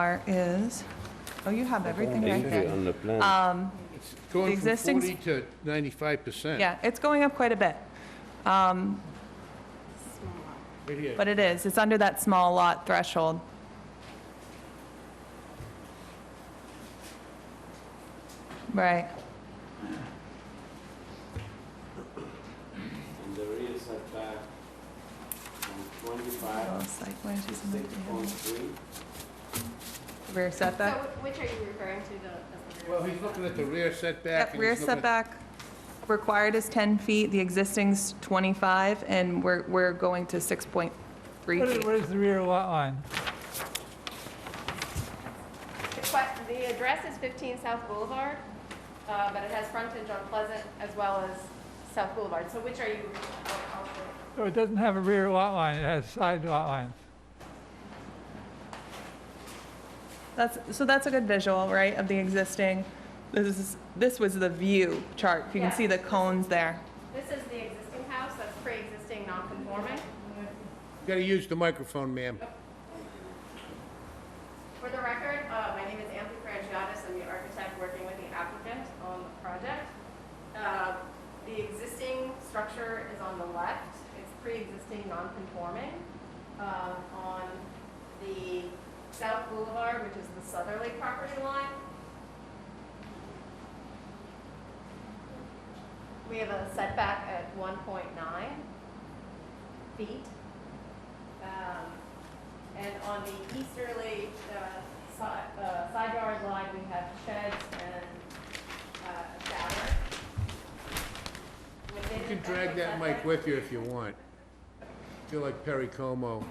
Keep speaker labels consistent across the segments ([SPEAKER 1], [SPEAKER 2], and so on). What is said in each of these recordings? [SPEAKER 1] are is, oh, you have everything right there.
[SPEAKER 2] On the plan.
[SPEAKER 3] It's Going from
[SPEAKER 1] existing-
[SPEAKER 3] 40 to 95%.
[SPEAKER 1] Yeah, it's going up quite a bit,
[SPEAKER 3] Right here.
[SPEAKER 1] but it is, it's under that small lot threshold. Right,
[SPEAKER 2] And the rear setback from
[SPEAKER 1] Oh,
[SPEAKER 2] 25
[SPEAKER 1] site plan,
[SPEAKER 2] to
[SPEAKER 1] she's in the
[SPEAKER 2] 6.3.
[SPEAKER 1] rear
[SPEAKER 4] So
[SPEAKER 1] setback.
[SPEAKER 4] wh- which are you referring to, the- the?
[SPEAKER 3] Well, he's looking at the rear setback.
[SPEAKER 1] Yep,
[SPEAKER 3] and
[SPEAKER 1] rear
[SPEAKER 3] he's looking at-
[SPEAKER 1] setback required is 10 feet, the existing's 25, and we're, we're going to 6.3
[SPEAKER 5] What is,
[SPEAKER 1] feet.
[SPEAKER 5] what is the rear lot line?
[SPEAKER 4] The que- The address is 15 South Boulevard, uh, but it has frontage on Pleasant as well as South Boulevard. So which are you?
[SPEAKER 5] So it doesn't have a rear lot line, it has side lot lines.
[SPEAKER 1] That's, so that's a good visual, right, of the existing. This is, this was the view chart, if you can
[SPEAKER 4] Yeah.
[SPEAKER 1] see the cones there.
[SPEAKER 4] This is the existing house that's pre-existing non-conforming.
[SPEAKER 3] You Gotta use the microphone, ma'am.
[SPEAKER 4] For the record, uh, my name is Anthony Frangiotis, I'm the architect working with the applicant on the project. Uh, The existing structure is on the left, it's pre-existing non-conforming. Um, On the South Boulevard, which is the southerly property line, we have a setback at 1.9 feet. Um, and on the easterly uh, side uh, side yard line, we have sheds and uh, a shower.
[SPEAKER 3] You can drag that mic with you if you want. Feel like Perry Como.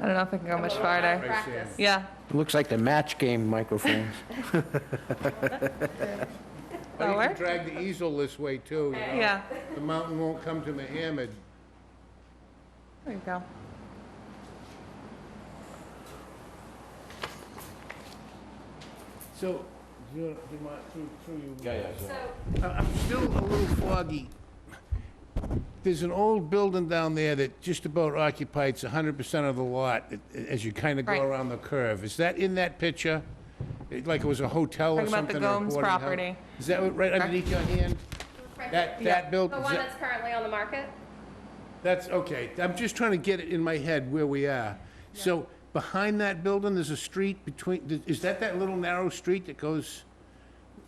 [SPEAKER 1] I don't know if I can go much farther.
[SPEAKER 4] Practice.
[SPEAKER 1] Yeah,
[SPEAKER 6] Looks like the match game microphones.
[SPEAKER 3] Or you can
[SPEAKER 1] Lower?
[SPEAKER 3] drag the easel this way too, you know?
[SPEAKER 1] yeah,
[SPEAKER 3] The mountain won't come to Mohammed.
[SPEAKER 1] there you go.
[SPEAKER 3] So, do you, do you mind, through, through you?
[SPEAKER 2] Yeah, yeah, so-
[SPEAKER 4] So,
[SPEAKER 3] I- I'm still a little foggy. There's an old building down there that just about occupies 100% of the lot a- a- as you kind of go
[SPEAKER 1] Right.
[SPEAKER 3] around the curve. Is that in that picture? It- Like it was a hotel or
[SPEAKER 1] Talking about the
[SPEAKER 3] something? or a
[SPEAKER 1] Gomes
[SPEAKER 3] boarding house?
[SPEAKER 1] property.
[SPEAKER 3] Is that what- right underneath your hand? That,
[SPEAKER 1] Yeah.
[SPEAKER 3] that building?
[SPEAKER 4] the one that's currently on the market?
[SPEAKER 3] That's, okay, I'm just trying to get it in my head where we are. So behind that building, there's a street between, is that that little narrow street that goes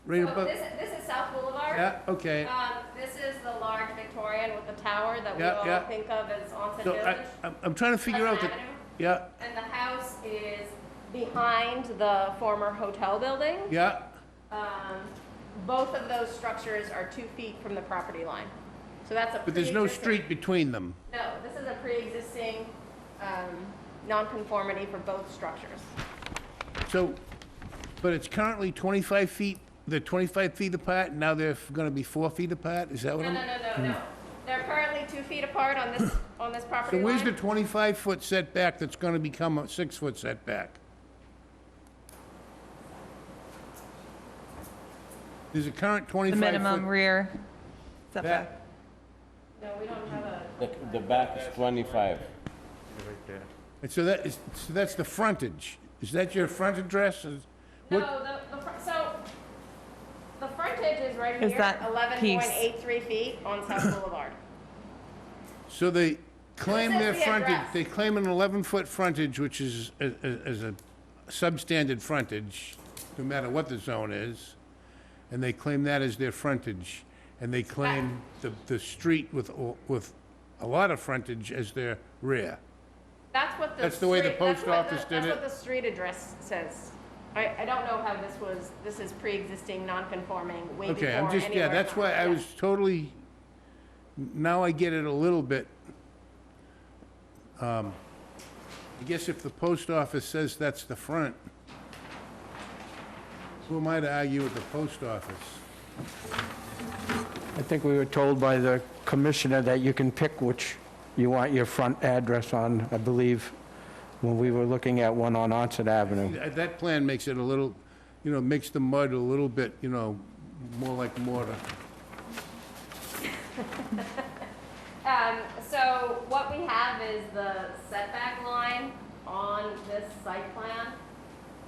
[SPEAKER 3] right
[SPEAKER 4] So
[SPEAKER 3] above?
[SPEAKER 4] Oh, this, this is South Boulevard.
[SPEAKER 3] Yeah, okay.
[SPEAKER 4] Um, This is the large Victorian with the tower that we
[SPEAKER 3] Yeah, yeah.
[SPEAKER 4] all think of as Onset
[SPEAKER 3] So I,
[SPEAKER 4] Village.
[SPEAKER 3] I'm- I'm trying to figure out
[SPEAKER 4] Pleasant
[SPEAKER 3] that,
[SPEAKER 4] Avenue.
[SPEAKER 3] yeah,
[SPEAKER 4] And the house is behind the former hotel building.
[SPEAKER 3] yeah.
[SPEAKER 4] Um, Both of those structures are two feet from the property line. So that's a.
[SPEAKER 3] But there's no
[SPEAKER 4] pre-existing-
[SPEAKER 3] street between them.
[SPEAKER 4] No, this is a pre-existing um, nonconformity for both structures.
[SPEAKER 3] So, but it's currently 25 feet, they're 25 feet apart, and now they're going to be four feet apart? Is that
[SPEAKER 4] No,
[SPEAKER 3] what
[SPEAKER 4] no,
[SPEAKER 3] I'm?
[SPEAKER 4] no, no, no. They're currently two feet apart on this, on this
[SPEAKER 3] So
[SPEAKER 4] property line.
[SPEAKER 3] where's the 25-foot setback that's going to become a six-foot setback? There's a current 25-foot...
[SPEAKER 1] The minimum rear setback.
[SPEAKER 3] That-
[SPEAKER 4] No, we don't have a,
[SPEAKER 2] The the back is 25.
[SPEAKER 3] And so that is, so that's the frontage. Is that your front address? Is-
[SPEAKER 4] no,
[SPEAKER 3] what-
[SPEAKER 4] the, the, fr- so, the frontage is right
[SPEAKER 1] Is
[SPEAKER 4] here,
[SPEAKER 1] that
[SPEAKER 4] eleven
[SPEAKER 1] piece?
[SPEAKER 4] point eight three feet on South Boulevard.
[SPEAKER 3] So they claim
[SPEAKER 4] This is
[SPEAKER 3] their
[SPEAKER 4] the
[SPEAKER 3] frontage,
[SPEAKER 4] address.
[SPEAKER 3] they claim an 11-foot frontage, which is, a- a- is a substandard frontage, no matter what the zone is, and they claim that as their frontage, and they claim the, the street with, o- with a lot of frontage as their rear.
[SPEAKER 4] That's what the.
[SPEAKER 3] That's the way the
[SPEAKER 4] street- that's
[SPEAKER 3] post
[SPEAKER 4] what
[SPEAKER 3] office
[SPEAKER 4] the-
[SPEAKER 3] did
[SPEAKER 4] That's
[SPEAKER 3] it.
[SPEAKER 4] what the street address says. I, I don't know how this was, this is pre-existing, non-conforming, way before
[SPEAKER 3] Okay,
[SPEAKER 4] any
[SPEAKER 3] I'm just, yeah,
[SPEAKER 4] of our
[SPEAKER 3] that's why I
[SPEAKER 4] time.
[SPEAKER 3] was totally, now I get it a little bit. Um, I guess if the post office says that's the front, who am I to argue with the post office?
[SPEAKER 6] I think we were told by the commissioner that you can pick which you want your front address on, I believe, when we were looking at one on Onset Avenue.
[SPEAKER 3] That Uh, that plan makes it a little, you know, makes the mud a little bit, you know, more like mortar.
[SPEAKER 4] Um, so what we have is the setback line on this site plan.